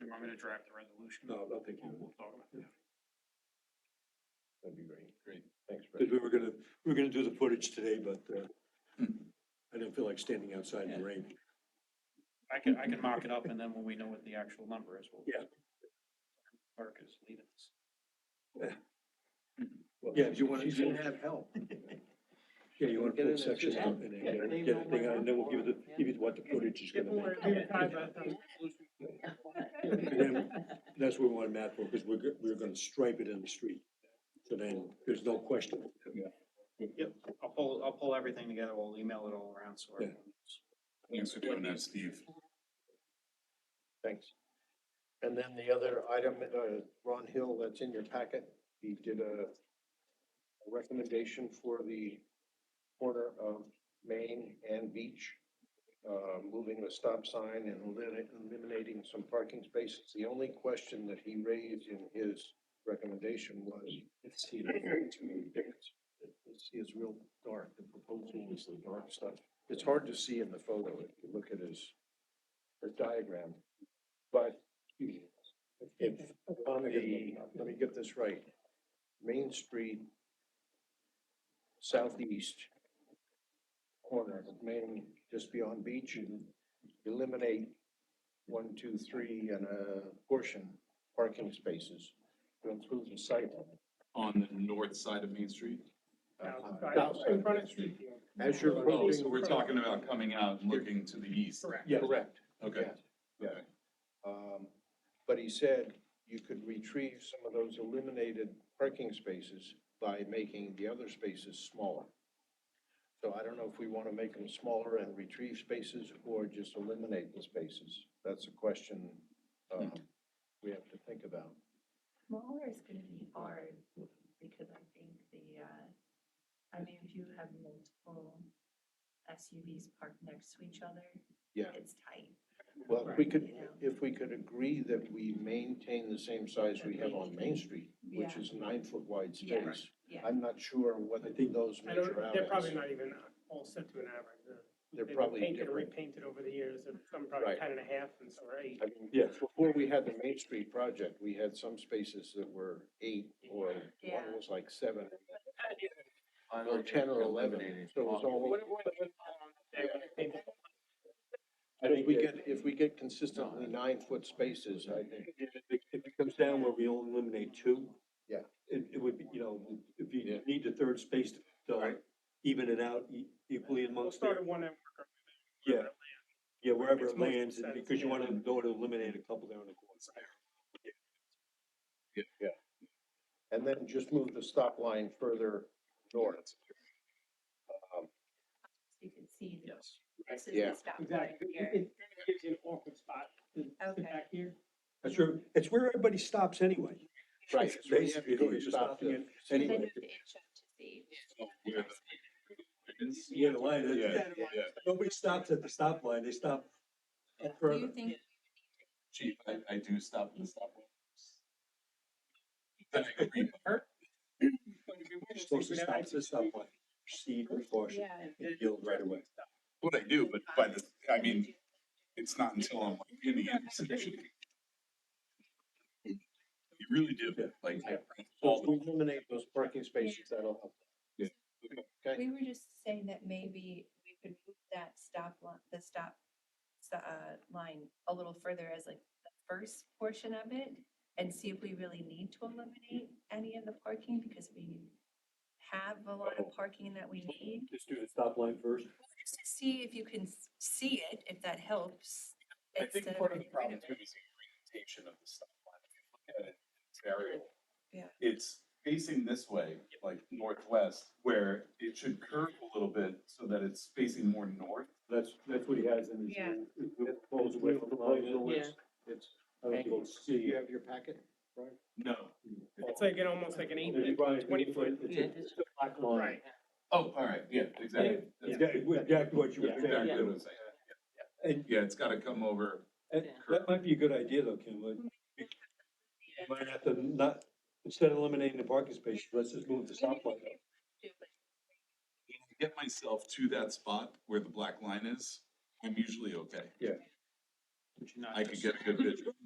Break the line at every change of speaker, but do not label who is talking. to draft the resolution.
No, I don't think you
We'll
would.
we'll talk about that.
That'd be great.
Great.
Thanks, Brett.
Because we were gonna, we were gonna do the footage today, but uh,
Hmm.
I didn't feel like standing outside in the rain.
I can, I can mock it up and then when we know what the actual number is, we'll.
Yeah.
Mark is leading us.
Well,
Yeah, you wanna-
She's gonna have help.
Yeah, you wanna
Get
put
in
a
there,
section
just-
up and then
yeah,
get
they
it- get
know
it thing
what
out, and then we'll give you the,
happened.
give you what the footage is gonna make. And then, that's what we wanted Matt for, because we're, go- we're gonna stripe it in the street. So then, there's no question.
Yep, I'll pull, I'll pull everything together, we'll email it all around, so.
Yeah.
everyone knows.
Thanks for doing that, Steve.
Thanks. And then the other item, uh, Ron Hill, that's in your packet, he did a a recommendation for the corner of Main and Beach, uh, moving a stop sign and elimi- eliminating some parking spaces. The only question that he raised in his recommendation was. It's too It's, it's real dark, the proposal is the dark stuff. It's hard to see in the photo if you look at his, his diagram. But if, on the, let me get this right, Main Street southeast corner of Main, just beyond Beach, eliminate one, two, three, and a portion parking spaces to improve the site.
On the north side of Main Street?
In front of street view.
As you're
Oh, so
approaching,
we're talking about coming out and looking to the east?
Correct.
yeah, correct.
Okay.
Yeah. Um, but he said you could retrieve some of those eliminated parking spaces by making the other spaces smaller. So I don't know if we want to make them smaller and retrieve spaces or just eliminate the spaces. That's a question, um, we have to think about.
Smaller is gonna be hard, because I think the, uh, I mean, if you have multiple SUVs parked next to each other,
Yeah,
it's tight.
well, if we could,
You know?
if we could agree that we maintain the same size we have on Main Street, which
Yeah.
is nine foot wide
Yeah.
space.
Yeah.
I'm not sure what
I think-
those
I
measure
don't,
out
they're
as.
probably not even uh, all set to an average. They're-
They're
They've been
probably
painted or
different.
repainted over the years, and some probably
Right.
ten and a half and some are eight.
I mean,
Yes.
before we had the Main Street project, we had some spaces that were eight or one
Yeah.
was like seven, or ten or eleven, so it was all. um, I think we get, if we get consistently nine foot spaces, I think,
If it comes down where we only eliminate two.
Yeah.
It, it would be, you know, if
Yeah.
you need the third space to- to even it out e- equally
We'll
amongst
start
there.
at one and work our way
Yeah,
down.
yeah, wherever
Makes
it
most
lands, and
sense,
because you
yeah.
wanna go to eliminate a couple there on the corner.
and then just move the stop line further north. Um,
You can see that
Yes.
this is
Yeah.
the stop sign here.
gives you an awkward spot
Okay.
here.
That's where, it's where everybody stops anyway.
Right,
It's
it's where you have
basically
to go, you
just
stop
stopping
there.
it
Then you
anyway.
have to inch up to see.
Yeah, the line, is-
Yeah,
yeah, nobody stops at the stop line, they stop up
Do you
further.
think,
Chief, I, I do stop at the stop. sign. Then I go green.
You're supposed to stop at the stop line, proceed with caution,
yeah.
and yield right away.
What I do, but by the, I mean, it's not until I'm like in the intersection. You really do, like,
So if we eliminate those parking spaces, that'll help.
Yeah.
Okay,
We were just saying that maybe we could move that stop line, the stop, s- uh, line a little further as like the first portion of it and see if we really need to eliminate any of the parking because we have a lot of parking that we need.
Just do the stop line first.
Just to see if you can s- see it, if that helps.
I think
instead
part of the
getting rid
problem
of
too
it.
is the orientation of the stop line. If you look at it, it's aerial.
Yeah.
It's facing this way, like northwest, where it should curve a little bit so that it's facing more north.
That's, that's what he has in his.
Yeah.
The proposal, the proposal is- it's, I don't think it's
do
C.
you have your packet?
No.
It's like an, almost like an eight,
It's
foot,
probably-
twenty foot.
it's a- it's a black line.
Right.
Oh, all right, yeah, exactly. That's
Yeah, it would- Exactly what you were
exactly what I
saying.
was saying.
And,
Yeah, it's gotta come over.
and that might be a good idea though, Kim, like, you might have to not, instead of eliminating the parking spaces, let's just move the stop line. up.
Get myself to that spot where the black line is, I'm usually okay.
Would you not
I could
just-
get a good picture.